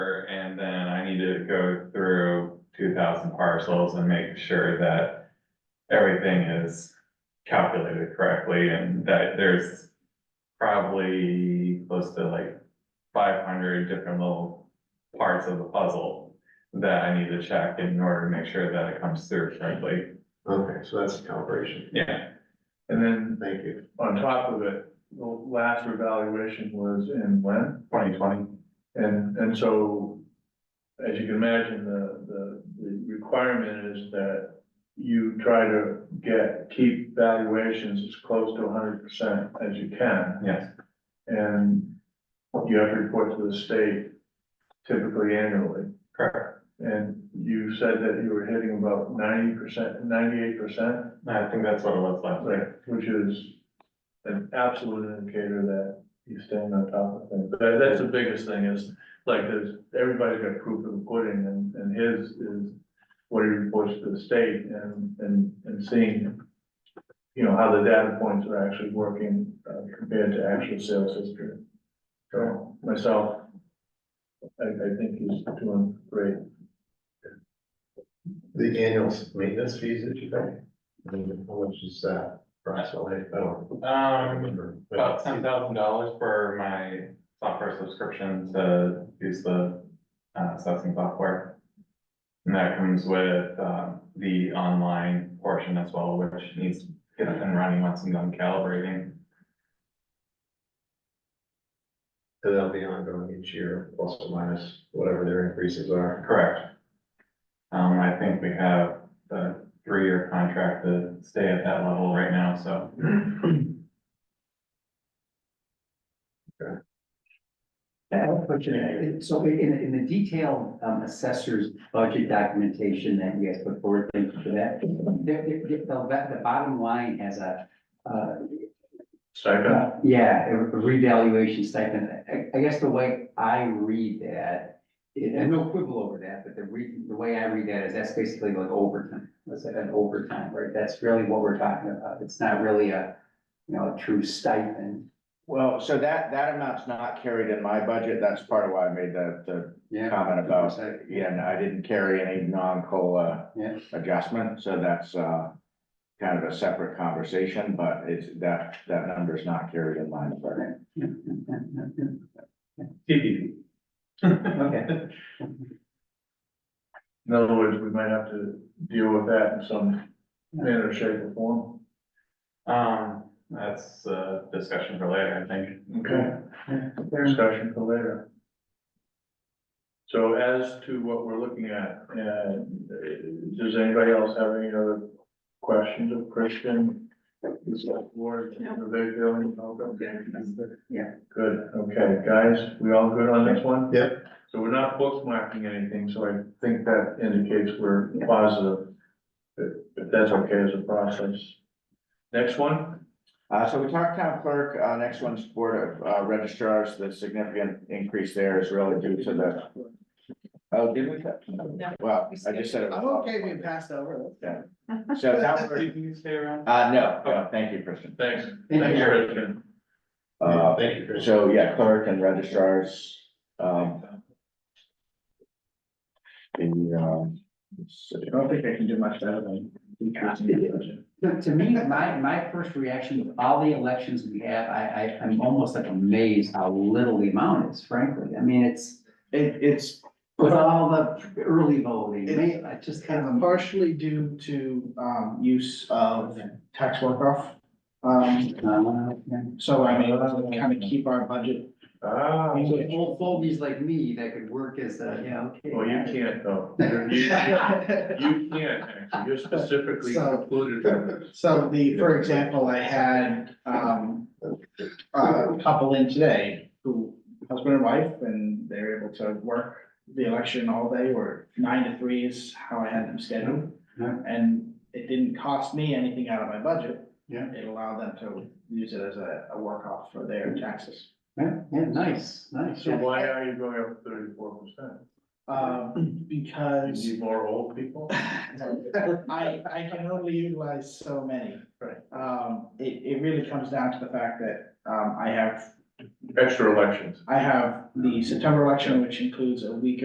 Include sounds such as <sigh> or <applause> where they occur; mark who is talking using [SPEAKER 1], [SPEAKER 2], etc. [SPEAKER 1] need to go through two thousand parcels and make sure that everything is calculated correctly and that there's probably close to like five hundred different little parts of the puzzle that I need to check in order to make sure that it comes through correctly.
[SPEAKER 2] Okay, so that's calibration.
[SPEAKER 1] Yeah,
[SPEAKER 3] And then
[SPEAKER 2] Thank you.
[SPEAKER 3] on top of it, the last revaluation was in when?
[SPEAKER 1] twenty twenty.
[SPEAKER 3] And, and so, as you can imagine, the, the, the requirement is that you try to get, keep valuations as close to hundred percent as you can.
[SPEAKER 1] Yes,
[SPEAKER 3] And you have to report to the state typically annually.
[SPEAKER 1] correct.
[SPEAKER 3] And you said that you were hitting about ninety percent, ninety-eight percent?
[SPEAKER 1] I think that's what it was last year.
[SPEAKER 3] Right, which is an absolute indicator that he's staying on top of things. That, that's the biggest thing is, like, there's, everybody's got proof of the pudding and, and his is what he reports to the state and, and, and seeing, you know, how the data points are actually working uh, compared to actual sales history. So myself, I, I think he's doing great.
[SPEAKER 2] The annual maintenance fees that you pay, I mean, how much is that for SLA? I don't. I don't
[SPEAKER 1] Um,
[SPEAKER 2] remember.
[SPEAKER 1] about ten thousand dollars for my software subscription to use the uh, assessing software. And that comes with, uh, the online portion as well, which needs to get up and running once I'm done calibrating.
[SPEAKER 2] And that'll be ongoing each year, plus or minus whatever their increases are.
[SPEAKER 1] Correct. Um, I think we have the three-year contract to stay at that level right now, so.
[SPEAKER 4] I have a question, Uh, so in, in the detailed um, assessor's budget documentation that you guys put forward, thank you for that. there- there- the, the, the bottom line has a, uh,
[SPEAKER 3] Second,
[SPEAKER 4] uh, yeah, a revaluation stipend. I, I guess the way I read that, and no quibble over that, but the re, the way I read that is that's basically like overtime. That's like an overtime, right? That's really what we're talking about. It's not really a, you know, a true stipend.
[SPEAKER 5] Well, so that, that amount's not carried in my budget. That's part of why I made the, the
[SPEAKER 4] Yeah.
[SPEAKER 5] comment about, yeah, and I didn't carry any non-COLA
[SPEAKER 4] Yeah.
[SPEAKER 5] adjustment, so that's, uh, kind of a separate conversation, but it's, that, that number's not carried in my budget.
[SPEAKER 1] TBD.
[SPEAKER 4] Okay.
[SPEAKER 3] in other words, we might have to deal with that in some manner, shape or form.
[SPEAKER 1] <laughs> Um, that's a discussion for later, I think.
[SPEAKER 3] Okay. Discussion for later. So as to what we're looking at, uh, does anybody else have any other questions of Christian? Is that Ward, are they feeling okay?
[SPEAKER 4] Yeah.
[SPEAKER 3] Good, okay, guys, we all good on this one?
[SPEAKER 2] Yep.
[SPEAKER 3] So we're not bookmarking anything, so I think that indicates we're positive. If, if that's okay as a process. Next one?
[SPEAKER 5] Uh, so we talked town clerk, uh, next one's board of, uh, registrars, the significant increase there is really due to the, oh, did we? Well, I just said it.
[SPEAKER 4] Oh,
[SPEAKER 5] was-
[SPEAKER 6] passed over.
[SPEAKER 5] So that,
[SPEAKER 1] Do
[SPEAKER 5] was-
[SPEAKER 1] you think stay around?
[SPEAKER 5] uh, no, no, thank you, Kristen.
[SPEAKER 3] Thanks.
[SPEAKER 4] Thank
[SPEAKER 3] Thanks,
[SPEAKER 4] you.
[SPEAKER 3] Christian.
[SPEAKER 5] Uh,
[SPEAKER 2] Thank you, Chris.
[SPEAKER 5] So, yeah, clerk and registrars, um. The, um, let's see.
[SPEAKER 3] don't think I can do much better than.
[SPEAKER 4] To, to me, my, my first reaction with all the elections we have, I, I, I'm almost like amazed how little the amount is, frankly. I mean, it's
[SPEAKER 6] It, it's
[SPEAKER 4] with all the early voting,
[SPEAKER 6] It-
[SPEAKER 4] I just kind of.
[SPEAKER 6] partially due to, um, use of tax work off. Um,
[SPEAKER 4] Uh, yeah.
[SPEAKER 6] so I mean, kind of keep our
[SPEAKER 4] <laughs>
[SPEAKER 6] budget.
[SPEAKER 3] Ah.
[SPEAKER 4] So old fogies like me that could work as a, yeah, okay.
[SPEAKER 3] Well, you can't though. You're- You you can't, actually. you're specifically
[SPEAKER 6] So-
[SPEAKER 3] precluded from
[SPEAKER 6] <laughs>
[SPEAKER 3] this.
[SPEAKER 6] So the, for example, I had, um, a couple in today who, husband and wife, and they're able to work the election all day, or nine to three is how I had them scheduled.
[SPEAKER 4] Yeah.
[SPEAKER 6] And it didn't cost me anything out of my budget.
[SPEAKER 4] Yeah.
[SPEAKER 6] It allowed them to use it as a, a work off for their taxes.
[SPEAKER 4] <clears throat> Yeah, yeah, nice, nice.
[SPEAKER 3] So why are you going up thirty-four percent?
[SPEAKER 6] Um,
[SPEAKER 3] You
[SPEAKER 6] because
[SPEAKER 3] need more old people?
[SPEAKER 6] I, I can only utilize so many.
[SPEAKER 3] Right.
[SPEAKER 6] Um, it, it really comes down to the fact that, um, I have,
[SPEAKER 3] Extra elections.
[SPEAKER 6] I have the September election, which includes a week